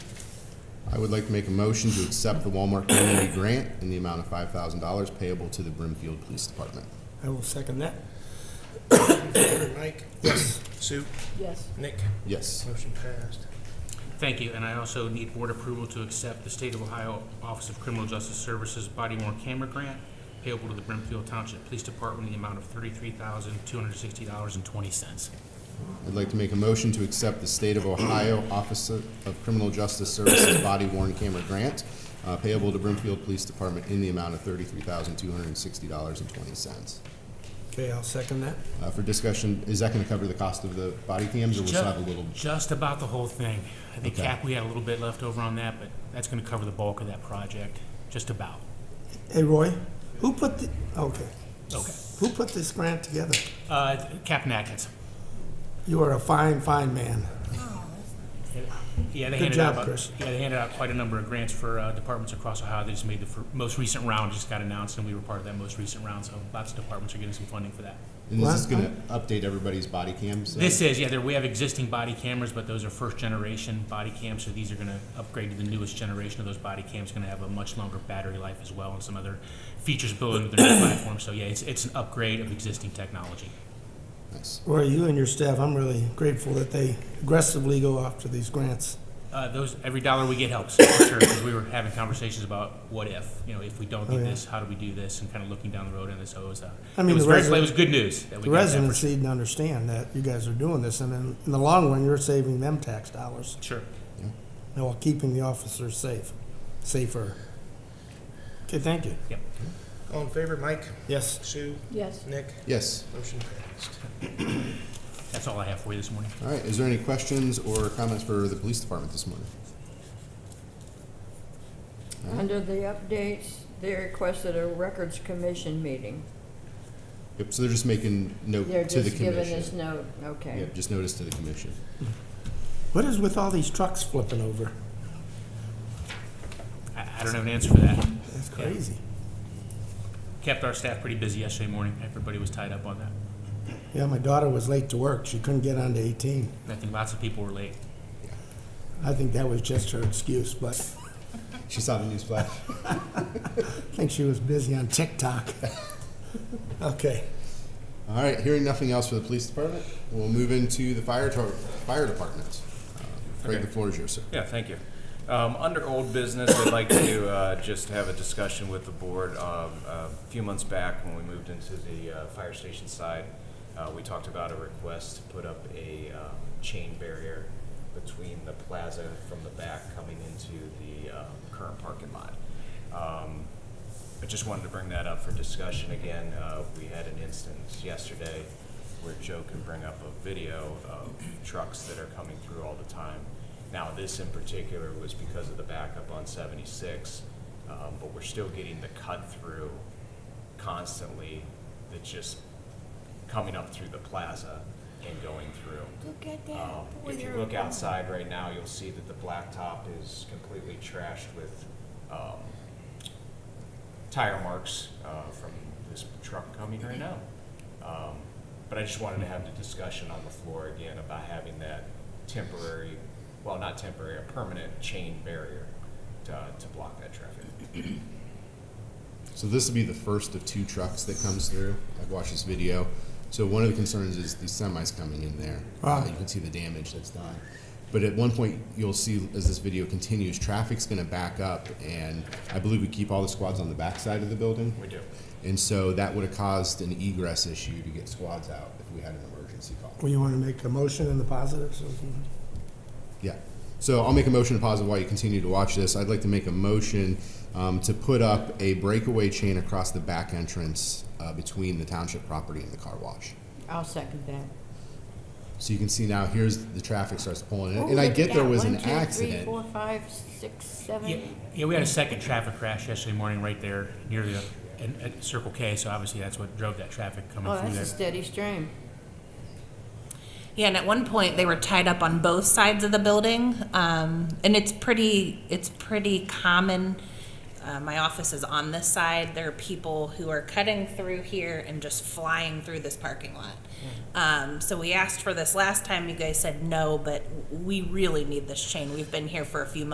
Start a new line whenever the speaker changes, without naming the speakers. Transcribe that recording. I would like to make a motion to accept the Walmart Community Grant in the amount of five thousand dollars payable to the Brimfield Police Department.
I will second that. Mike? Yes. Sue?
yes,
Nick?
Yes.
Motion passed.
Thank you, and I also need board approval to accept the State of Ohio Office of Criminal Justice Services Body Worn Camera Grant payable to the Brimfield Township Police Department in the amount of thirty-three thousand, two hundred and sixty dollars and twenty cents.
I'd like to make a motion to accept the State of Ohio Office of Criminal Justice Services Body Worn Camera Grant uh, payable to Brimfield Police Department in the amount of thirty-three thousand, two hundred and sixty dollars and twenty cents. Uh,
Okay, I'll second that.
For discussion, is that gonna cover the cost of the body cams, or we'll still have a little?
Just about the whole thing. I think
Okay.
cap, we had a little bit left over on that, but that's gonna cover the bulk of that project, just about.
Hey, Roy, who put the, okay,
Okay.
who put this grant together?
Uh, Captain Atkins.
You are a fine, fine man.
Yeah, they
Good
handed
job,
out,
Chris.
yeah, they handed out quite a number of grants for uh, departments across Ohio. They just made the fir- most recent round, just got announced, and we were part of that most recent round, so lots of departments are getting some funding for that.
And this is
Well,
gonna update everybody's body cams? uh,
This is, yeah, there, we have existing body cameras, but those are first generation body cams, so these are gonna upgrade to the newest generation of those body cams, gonna have a much longer battery life as well, and some other features built into their new platform, so yeah, it's, it's an upgrade of existing technology.
Nice.
Roy, you and your staff, I'm really grateful that they aggressively go after these grants.
Uh, those, every dollar we get helps, for sure, because we were having conversations about what if, you know, if we don't do
Oh, yeah.
this, how do we do this, and kind of looking down the road on this, so it was, uh,
I
it
mean,
was
the
very,
resi-
it was good news that we
The
got that for
residents need to understand that you guys are doing this, and in, in the long run, you're saving them tax dollars,
sure.
and while keeping the officers safe, safer. Okay, thank you.
Yep.
All in favor, Mike,
Yes.
Sue,
yes.
Nick,
Yes.
motion passed.
That's all I have for you this morning.
All right, is there any questions or comments for the police department this morning?
Under the updates, they requested a records commission meeting.
Yep, so they're just making note
They're
to the
just giving
commission.
us note, okay.
Yep, just notice to the commission.
What is with all these trucks flipping over?
I, I don't have an answer for that.
That's
Yeah.
crazy.
Kept our staff pretty busy yesterday morning, everybody was tied up on that.
Yeah, my daughter was late to work. She couldn't get onto 18.
I think lots of people were late.
I think that was just her excuse, but
She saw the news flash.
I think she was busy on TikTok. Okay.
All right, hearing nothing else for the police department, we'll move into the fire tor- fire department. Uh, Craig,
Okay.
the floor is yours, sir.
Yeah, thank you. Um, Under old business, I'd like to uh, just have a discussion with the board. Um, A few months back, when we moved into the uh, fire station side, uh, we talked about a request to put up a um, chain barrier between the plaza from the back coming into the um, current parking lot. Um, I just wanted to bring that up for discussion again. Uh, we had an instance yesterday where Joe can bring up a video of trucks that are coming through all the time. Now, this in particular was because of the backup on 76, um, but we're still getting the cut through constantly that just coming up through the plaza and going through.
Look at
Um, If you look outside right now, you'll see that the blacktop is completely trashed with um, tire marks uh, from this truck coming right now. Um, But I just wanted to have the discussion on the floor again about having that temporary, well, not temporary, a permanent chain barrier to to block that traffic.
So this will be the first of two trucks that comes through. I've watched this video. So one of the concerns is the semis coming in there. Uh,
Ah.
you can see the damage that's done. But at one point, you'll see as this video continues, traffic's going to back up, and I believe we keep all the squads on the backside of the building.
We do.
And so that would have caused an egress issue to get squads out if we had an emergency call.
Well, you want to make a motion in the positive? so-
Yeah. So I'll make a motion to pause it while you continue to watch this. I'd like to make a motion um, to put up a breakaway chain across the back entrance uh, between the township property and the car wash.
I'll second that.
So you can see now, here's the traffic starts pulling in. And I get there was an accident.
One, two, three, four, five, six,
Yeah,
seven,
yeah, we had a second traffic crash yesterday morning right there near the, and, at Circle K, so obviously that's what drove that traffic coming
oh,
through
that's a
there.
steady stream.
Yeah, and at one point they were tied up on both sides of the building, um, and it's pretty it's pretty common. Uh, my office is on this side. There are people who are cutting through here and just flying through this parking lot. Um, so we asked for this last time. You guys said no, but we really need this chain. We've been here for a few months.